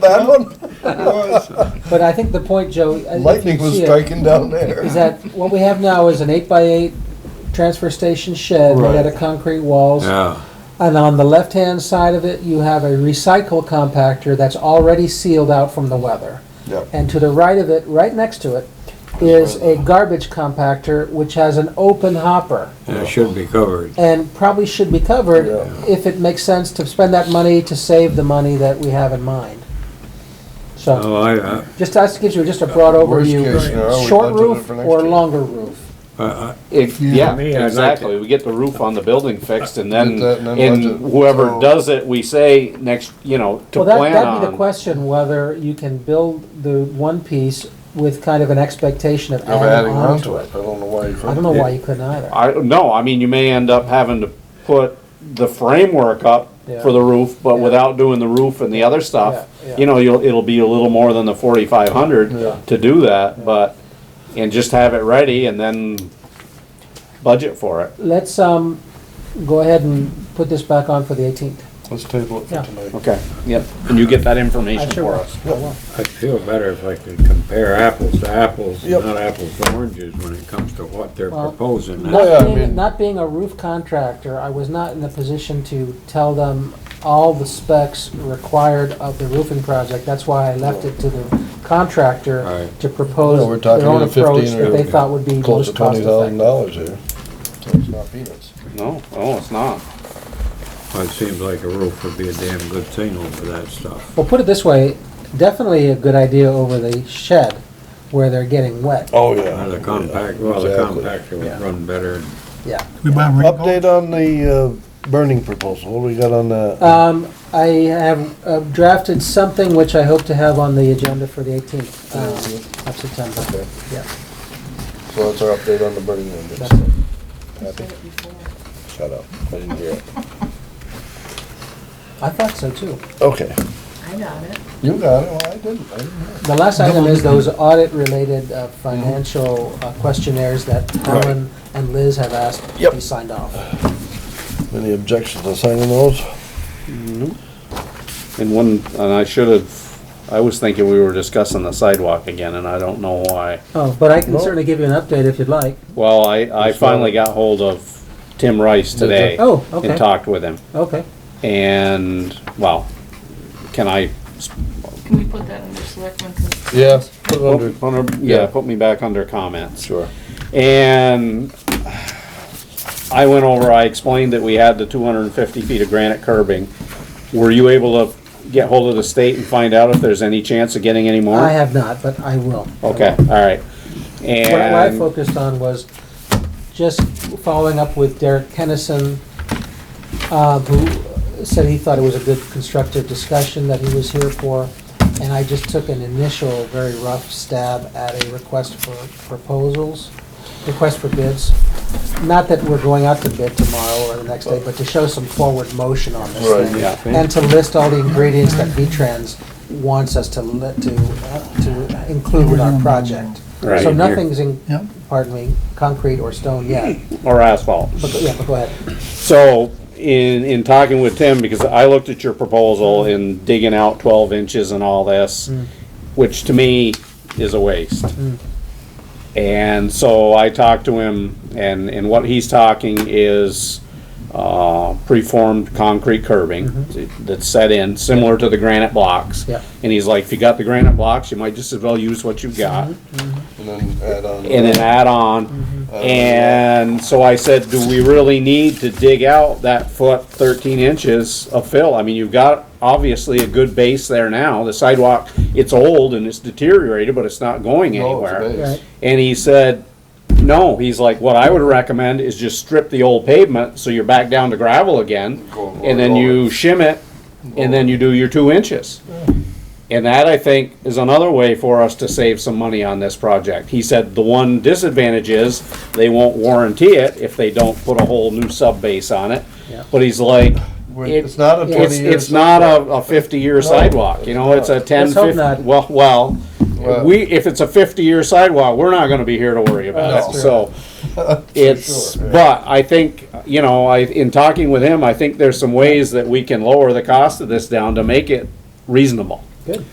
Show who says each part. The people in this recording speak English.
Speaker 1: that one?
Speaker 2: But I think the point, Joe, I- if
Speaker 1: Lightning
Speaker 2: you
Speaker 1: was
Speaker 2: see it,
Speaker 1: striking down there.
Speaker 2: is that what we have now is an eight by eight transfer station shed made out
Speaker 1: Right.
Speaker 2: of concrete walls.
Speaker 3: Yeah,
Speaker 2: And on the left-hand side of it, you have a recycle compactor that's already sealed out from the weather.
Speaker 1: Yeah.
Speaker 2: And to the right of it, right next to it, is a garbage compactor which has an open hopper
Speaker 3: it should be covered.
Speaker 2: and probably should be covered
Speaker 1: Yeah.
Speaker 2: if it makes sense to spend that money to save the money that we have in mind. So,
Speaker 3: Oh, I, I-
Speaker 2: just, that gives you just a broad
Speaker 1: Worst case scenario,
Speaker 2: overview.
Speaker 1: we
Speaker 2: Short
Speaker 1: budgeted
Speaker 2: roof
Speaker 1: for next
Speaker 2: or
Speaker 1: year.
Speaker 2: longer roof?
Speaker 3: I,
Speaker 4: If,
Speaker 3: To
Speaker 4: yeah,
Speaker 3: me, I'd like
Speaker 4: exactly,
Speaker 3: to-
Speaker 4: we get the roof on the building fixed and then,
Speaker 1: Get that and then
Speaker 4: and
Speaker 1: budget.
Speaker 4: whoever
Speaker 1: So-
Speaker 4: does it, we say next, you know, to
Speaker 2: Well, that,
Speaker 4: plan
Speaker 2: that'd be the
Speaker 4: on.
Speaker 2: question, whether you can build the one piece with kind of an expectation of
Speaker 1: Of
Speaker 2: adding on to
Speaker 1: to
Speaker 2: it.
Speaker 1: I don't know why you
Speaker 2: I don't
Speaker 1: couldn't.
Speaker 2: know why you couldn't either.
Speaker 4: I, no, I mean, you may end up having to put the framework up
Speaker 2: Yeah.
Speaker 4: for the roof, but
Speaker 2: Yeah.
Speaker 4: without doing the roof and the other stuff,
Speaker 2: Yeah, yeah.
Speaker 4: you know, you'll, it'll be a little more than the forty-five
Speaker 1: Yeah.
Speaker 4: hundred to do that, but, and just have it ready and then budget for it,
Speaker 2: Let's, um, go ahead and put this back on for the eighteenth.
Speaker 1: Let's table it
Speaker 2: Yeah.
Speaker 1: for tonight.
Speaker 4: okay, yep, and you get that
Speaker 2: I
Speaker 4: information
Speaker 2: sure
Speaker 4: for
Speaker 2: will.
Speaker 4: us.
Speaker 2: I will.
Speaker 3: I'd feel better if I could compare apples to apples,
Speaker 1: Yep.
Speaker 3: not apples to oranges when it comes to what they're
Speaker 2: Well,
Speaker 3: proposing.
Speaker 1: No, yeah, I
Speaker 2: Not being,
Speaker 1: mean-
Speaker 2: not being a roof contractor, I was not in the position to tell them all the specs required of the roofing project. That's why I left it to the contractor
Speaker 3: Right.
Speaker 2: to
Speaker 1: Yeah, we're
Speaker 2: propose
Speaker 1: talking
Speaker 2: their own
Speaker 1: to 15
Speaker 2: approach that
Speaker 1: or
Speaker 2: they thought would be
Speaker 1: Close to
Speaker 2: most cost
Speaker 1: twenty thousand
Speaker 2: effective.
Speaker 1: dollars here. So It's not peanuts.
Speaker 4: No, oh, it's not.
Speaker 3: Well, It seems like a roof would be a damn good thing over that stuff.
Speaker 2: Well, put it this way, definitely a good idea over the shed where they're getting wet.
Speaker 1: Oh,
Speaker 3: Uh, The compact, well, the
Speaker 1: Exactly.
Speaker 3: compactor
Speaker 2: Yeah.
Speaker 3: would run better.
Speaker 2: Yeah.
Speaker 5: We buy them recall?
Speaker 1: Update on the uh, burning proposal, what do we got on that?
Speaker 2: Um, I have uh, drafted something which I hope to have on the agenda for the 18th uh, of September.
Speaker 1: Okay.
Speaker 2: Yeah,
Speaker 1: So that's our update on the burning
Speaker 2: that's it.
Speaker 1: windows. Happy? Shut up, I didn't hear it.
Speaker 2: I thought so too.
Speaker 1: Okay,
Speaker 6: I got it.
Speaker 1: you got it, well, I didn't, I didn't hear it.
Speaker 2: The last item is those audit-related uh, financial uh, questionnaires that
Speaker 1: Right.
Speaker 2: Helen and Liz have asked to
Speaker 1: Yep.
Speaker 2: be signed off.
Speaker 1: Any objections to signing those?
Speaker 4: And one, and I should have, I was thinking we were discussing the sidewalk again, and I don't know why.
Speaker 2: Oh, but I can
Speaker 1: Well-
Speaker 2: certainly give you an update if you'd like.
Speaker 4: Well, I, I finally got hold of Tim Rice today.
Speaker 2: Oh, okay.
Speaker 4: And talked with him,
Speaker 2: Okay.
Speaker 4: and, well, can I,
Speaker 6: Can we put that under selectmen? 'Cause
Speaker 1: Yeah, put it under,
Speaker 4: yeah, put me back under comments.
Speaker 1: sure.
Speaker 4: And I went over, I explained that we had the two hundred and fifty feet of granite curbing. Were you able to get hold of the state and find out if there's any chance of getting any more?
Speaker 2: I have not, but I will.
Speaker 4: Okay, all right.
Speaker 2: What what I
Speaker 4: And,
Speaker 2: focused on was just following up with Derek Kennison, uh, who said he thought it was a good constructive discussion that he was here for. And I just took an initial, very rough stab at a request for proposals, request for bids. Not that we're going out to bid tomorrow or the next day, but to show some forward motion on this
Speaker 1: Right,
Speaker 2: thing.
Speaker 4: yeah.
Speaker 2: And to list all the ingredients that V-Trans wants us to, li- to, uh, to include in our project.
Speaker 4: Right.
Speaker 2: So nothing's in,
Speaker 5: Yep.
Speaker 2: pardon me, concrete or stone yet,
Speaker 4: or asphalt.
Speaker 2: but, go- yeah, but go ahead.
Speaker 4: So, in, in talking with Tim, because I looked at your proposal in digging out twelve inches and all this, which to me is a waste. And so I talked to him, and, and what he's talking is, uh, preformed concrete curbing that's set in, similar to the granite blocks.
Speaker 2: Yeah.
Speaker 4: And he's like, if you got the granite blocks, you might just as well use what you've got
Speaker 1: And then add on.
Speaker 4: and an add-on. And so I said, do we really need to dig out that foot thirteen inches of fill? I mean, you've got obviously a good base there now. The sidewalk, it's old and it's deteriorated, but it's not going
Speaker 1: No, it's
Speaker 4: anywhere.
Speaker 1: base.
Speaker 2: Right.
Speaker 4: And he said, no, he's like, what I would recommend is just strip the old pavement, so you're back down to gravel again.
Speaker 1: Go over,
Speaker 4: And then
Speaker 1: go
Speaker 4: you shim it, and then you do your two inches. And that, I think, is another way for us to save some money on this project. He said the one disadvantage is they won't warranty it if they don't put a whole new sub base on it.
Speaker 2: Yeah.
Speaker 4: But he's like,
Speaker 1: We're-
Speaker 4: it-
Speaker 1: It's not a twenty
Speaker 4: it's,
Speaker 1: year.
Speaker 4: it's not a, a fifty-year sidewalk, you know, it's a ten,
Speaker 2: Let's hope
Speaker 4: fifty,
Speaker 2: not.
Speaker 4: well, well,
Speaker 1: Well-
Speaker 4: we, if it's a fifty-year sidewalk, we're not gonna be here to worry about it,
Speaker 2: That's
Speaker 4: so. It's,
Speaker 1: sure, yeah.
Speaker 4: but I think, you know, I, in talking with him, I think there's some ways that we can lower the cost of this down to make it reasonable.
Speaker 2: Good.